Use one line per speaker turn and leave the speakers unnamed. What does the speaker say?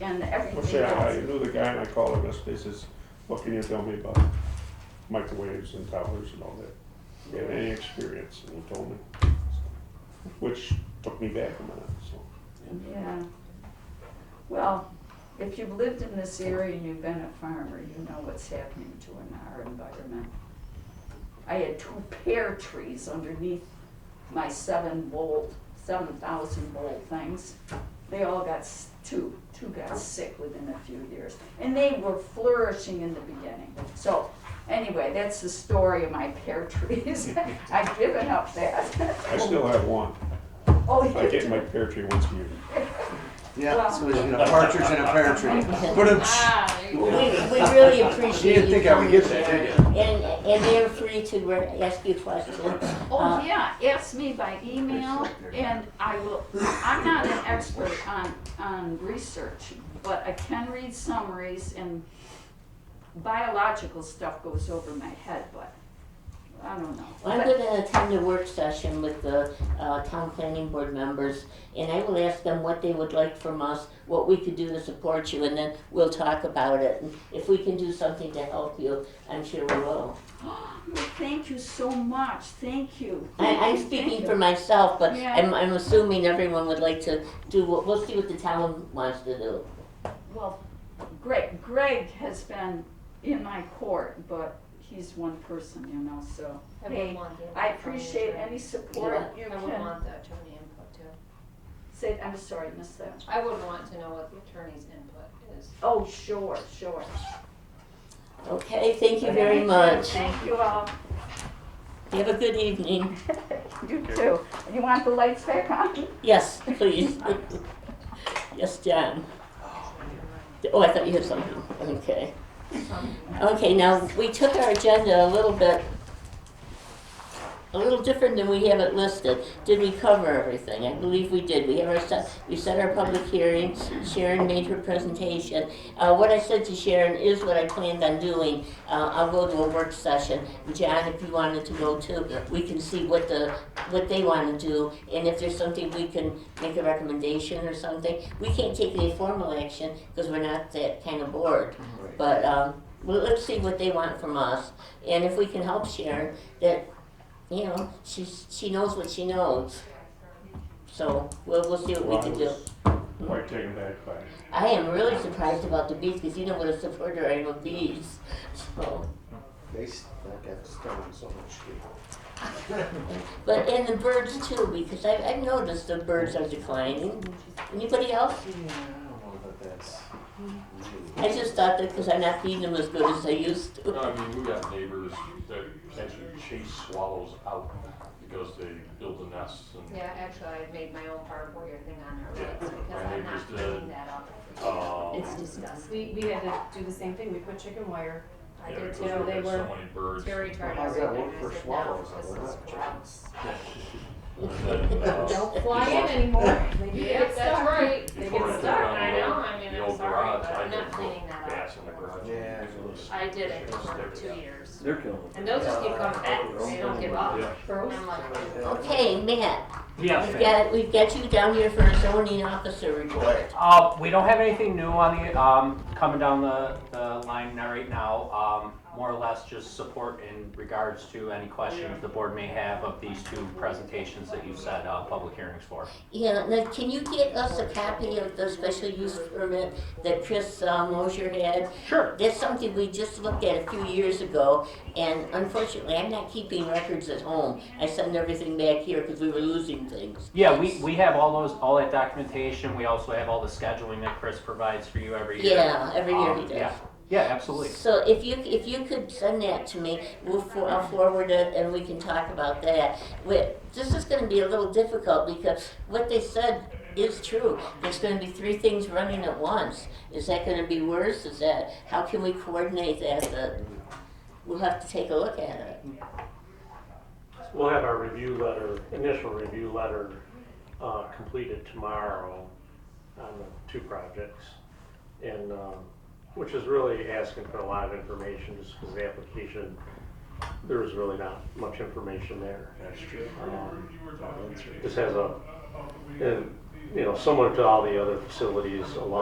and
Well,
everything
say, I I
else.
knew the guy and I called him yesterday, he says, what can you tell me about microwaves and towers and all that? Do you have any experience? And he told me. Which took me back a minute, so.
Yeah. Well, if you've lived in this area and you've been a farmer, you know what's happening to an our environment. I had two pear trees underneath my seven volt, seven thousand volt things. They all got, s- two, two got sick within a few years, and they were flourishing in the beginning. So, anyway, that's the story of my pear trees. I've given up that.
I still have one.
Oh,
I
you
get
do.
my pear tree once a year.
Yeah, so there's been a partridge and a pear tree. But it's,
Ah, there you
We,
go.
we really appreciate
You didn't think
you
I would
coming
get that,
Jerry.
did
And, and they're free to re- ask you questions.
Oh,
Uh,
yeah, ask me by email, and I will, I'm not an expert on, on research, but I can read summaries, and biological stuff goes over my head, but, I don't know.
I'm
But-
going to attend a work session with the uh, town planning board members, and I will ask them what they would like from us, what we could do to support you, and then we'll talk about it. And if we can do something to help you, I'm sure we will.
Well, Thank you so much, thank you.
I, I'm speaking for myself, but
Yeah.
I'm, I'm assuming everyone would like to do, what- we'll see what the town wants to do.
Well, Greg, Greg has been in my court, but he's one person, you know, so,
I
hey,
wouldn't want the input
I
from you,
appreciate
Tony.
any support you
I wouldn't
can,
want the attorney input too.
say, I'm sorry, I missed that.
I would want to know what the attorney's input is.
Oh, sure, sure.
Okay, thank you very much.
Thank you all.
You Have a good evening.
You too. You want the lights back on?
Yes, please. Yes, John. Oh, I thought you had something. Okay. Okay, now, we took our agenda a little bit, a little different than we have it listed. Did we cover everything? I believe we did. We have our, set- we set our public hearing, Sharon made her presentation. Uh, what I said to Sharon is what I planned on doing. Uh, I'll go to a work session. John, if you wanted to go too, we can see what the, what they wanna do, and if there's something we can make a recommendation or something. We can't take any formal action, because we're not that kind of board. But, um, well, let's see what they want from us, and if we can help Sharon, that, you know, she's, she knows what she knows. So, we'll, we'll see
Well,
what
I
we can do.
was Quite taken back by it.
I am really surprised about the bees, because you know what a supporter I am of bees, so.
they stuck at stone so much.
But and the birds too, because I, I've noticed the birds are declining. Anybody else?
Yeah, I don't know about that.
I just thought that because I'm not feeding them as good as I used
No,
to.
I mean, we got neighbors that actually chase swallows out because they build the nests and,
Yeah, actually, I made my own part warrior thing on our
Yeah,
roads
my
because I'm
neighbors
not
did.
cleaning that up.
um,
It's disgusting. We, we had to do the same thing, we put chicken wire. I
yeah,
did
because
too, they
there were
were,
so many birds.
It's very
Well,
tired.
how's that work for swallows?
This
They're
is
not
gross.
And then, uh,
Don't fly in anymore. They do
Yeah,
get
that's
stuck.
right. They
before I
get
took
stuck,
down
I
the
know,
old-
I mean,
the
I'm
old
sorry,
garage,
but I'm
I
not
just put
cleaning that up.
bats in the garage.
Yeah.
I did it for two years.
They're killing them.
And those just keep coming back, they don't give up.
Yeah.
And I'm like,
Okay, Matt,
Yes,
we've
ma'am.
got we've got you down here for a zoning officer report.
Uh, we don't have anything new on the, um, coming down the, the line now right now. Um, more or less just support in regards to any questions the board may have of these two presentations that you set, uh, public hearings for.
Yeah, now can you get us a copy of the special use permit that Chris uh, Mosier had?
Sure.
That's something we just looked at a few years ago, and unfortunately, I'm not keeping records at home. I send everything back here because we were losing things.
Yeah, we, we have all those, all that documentation. We also have all the scheduling that Chris provides for you every year.
Yeah, every year he
Um,
does.
Yeah, yeah, absolutely.
So if you, if you could send that to me, we'll, for- I'll forward it and we can talk about that. We, this is gonna be a little difficult because what they said is true. There's gonna be three things running at once. Is that gonna be worse? Is that, how can we coordinate that? The- We'll have to take a look at it.
We'll have our review letter, initial review letter, uh, completed tomorrow on the two projects. And, um, which is really asking for a lot of information, just because the application, there is really not much information there.
That's true.
Um,
That's true.
This has a, and, you know, similar to all the other facilities along